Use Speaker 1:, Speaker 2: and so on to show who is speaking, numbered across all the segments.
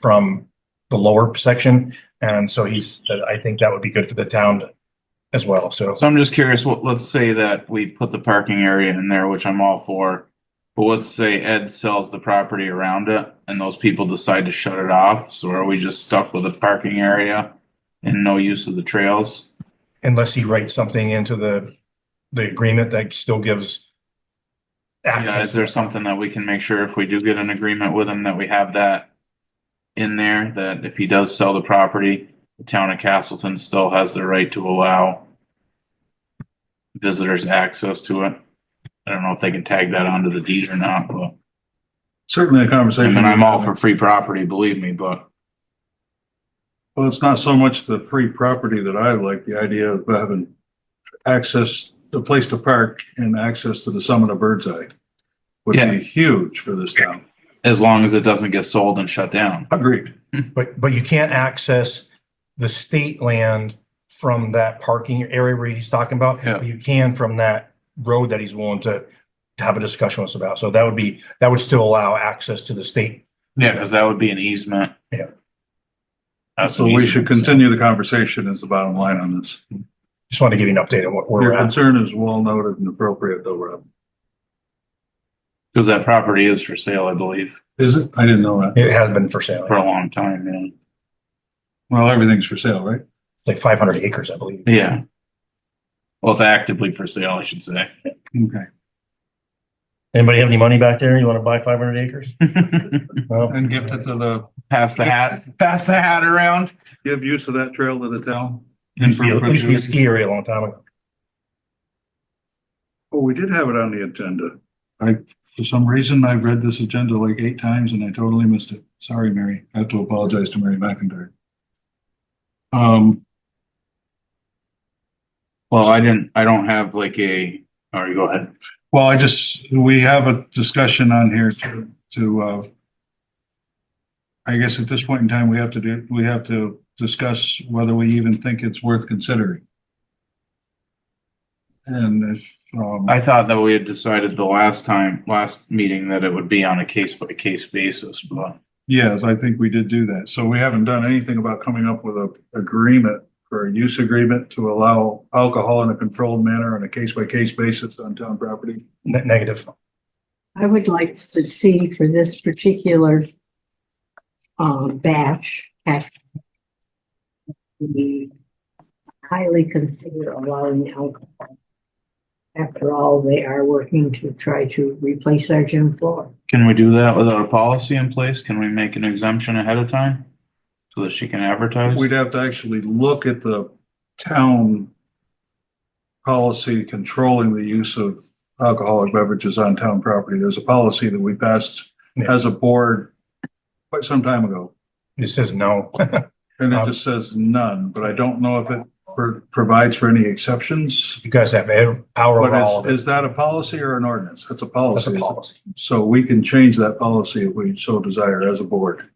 Speaker 1: from the lower section. And so he's, I think that would be good for the town as well. So
Speaker 2: So I'm just curious, what, let's say that we put the parking area in there, which I'm all for. But let's say Ed sells the property around it and those people decide to shut it off, so are we just stuck with a parking area? And no use of the trails?
Speaker 1: unless he writes something into the, the agreement that still gives
Speaker 2: Yeah, is
Speaker 1: access.
Speaker 2: there something that we can make sure if we do get an agreement with him that we have that? In there, that if he does sell the property, the town of Castleton still has the right to allow. Visitors access to it. I don't know if they can tag that onto the deed or not, but.
Speaker 3: Certainly a conversation.
Speaker 2: And I'm all
Speaker 3: we're
Speaker 2: for free property, believe me, but
Speaker 3: Well, it's not so much the free property that I like, the idea of having access, a place to park and access to the summit of Bird's Eye would
Speaker 2: Yeah.
Speaker 3: be huge for this town.
Speaker 2: as long as it doesn't get sold and shut down.
Speaker 3: Agreed.
Speaker 1: But, but you can't access the state land from that parking area where he's talking about.
Speaker 2: Yeah.
Speaker 1: but You can from that road that he's willing to to have a discussion with us about. So that would be, that would still allow access to the state.
Speaker 2: Yeah, because that would be an easement.
Speaker 1: Yeah.
Speaker 2: That's
Speaker 3: So
Speaker 2: an
Speaker 3: we
Speaker 2: easement,
Speaker 3: should
Speaker 2: so-
Speaker 3: continue the conversation is the bottom line on this.
Speaker 1: Just wanted to give you an update on what where we're
Speaker 3: Your
Speaker 1: at.
Speaker 3: concern is well noted and appropriate though, Rob.
Speaker 2: Because that property is for sale, I believe,
Speaker 3: Is it? I didn't know that.
Speaker 1: It has been for sale,
Speaker 2: for a long time, yeah.
Speaker 3: Well, everything's for sale, right?
Speaker 1: like five hundred acres, I believe.
Speaker 2: Yeah. Well, it's actively for sale, I should say.
Speaker 3: Okay.
Speaker 1: Anybody have any money back there? You want to buy five hundred acres? No?
Speaker 3: And gift it to the,
Speaker 2: Pass the hat, pass the hat around.
Speaker 3: give use of that trail to the town. in
Speaker 1: Used to be a- used to be a
Speaker 3: perpetuity.
Speaker 1: ski area a long time ago.
Speaker 3: Oh, we did have it on the agenda. I, for some reason, I read this agenda like eight times and I totally missed it. Sorry, Mary. I have to apologize to Mary McIntyre. Um,
Speaker 2: Well, I didn't, I don't have like a, all right, go ahead.
Speaker 3: well, I just, we have a discussion on here to, to, uh, I guess at this point in time, we have to do, we have to discuss whether we even think it's worth considering. And if, um,
Speaker 2: I thought that we had decided the last time, last meeting, that it would be on a case by case basis, but
Speaker 3: Yes, I think we did do that. So we haven't done anything about coming up with a agreement or a use agreement to allow alcohol in a controlled manner on a case by case basis on town property.
Speaker 1: Ne- Negative.
Speaker 4: I would like to see for this particular um, batch, has to be highly consider allowing alcohol. After all, they are working to try to replace our gym floor.
Speaker 2: can we do that without a policy in place? Can we make an exemption ahead of time? So that she can advertise?
Speaker 3: We'd have to actually look at the town policy controlling the use of alcoholic beverages on town property. There's a policy that we passed as a board quite some time ago.
Speaker 1: It says no.
Speaker 3: And it just says none, but I don't know if it pro- provides for any exceptions.
Speaker 1: You guys have ev- power over all
Speaker 3: But
Speaker 1: of it.
Speaker 3: is, is that a policy or an ordinance? That's a
Speaker 1: That's
Speaker 3: policy.
Speaker 1: a
Speaker 3: isn't it?
Speaker 1: policy.
Speaker 3: So we can change that policy if we so desire as a board.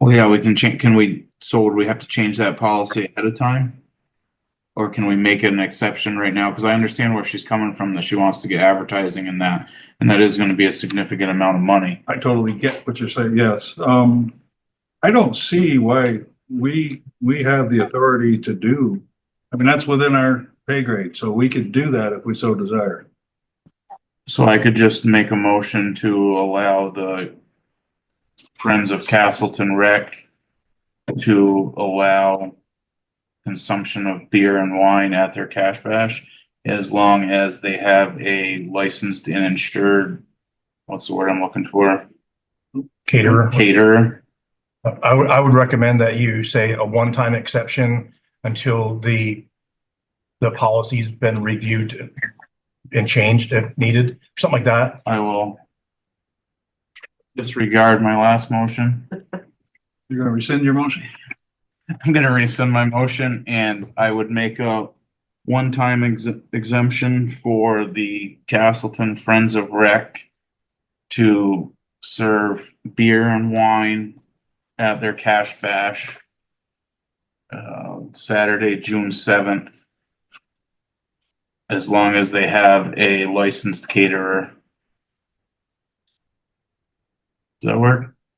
Speaker 2: Well, yeah, we can change, can we, so would we have to change that policy ahead of time? Or can we make an exception right now? Because I understand where she's coming from, that she wants to get advertising and that, and that is gonna be a significant amount of money.
Speaker 3: I totally get what you're saying, yes. Um, I don't see why we, we have the authority to do. I mean, that's within our pay grade, so we could do that if we so desire.
Speaker 2: So I could just make a motion to allow the Friends of Castleton Rec to allow consumption of beer and wine at their cash bash as long as they have a licensed and insured, what's the word I'm looking for?
Speaker 1: Caterer.
Speaker 2: Caterer.
Speaker 1: I would, I would recommend that you say a one-time exception until the, the policy's been reviewed and changed if needed, something like that.
Speaker 2: I will disregard my last motion.
Speaker 3: You're gonna rescind your motion?
Speaker 2: I'm gonna rescind my motion and I would make a one-time ex- exemption for the Castleton Friends of Rec to serve beer and wine at their cash bash uh, Saturday, June seventh. As long as they have a licensed caterer. Does that work?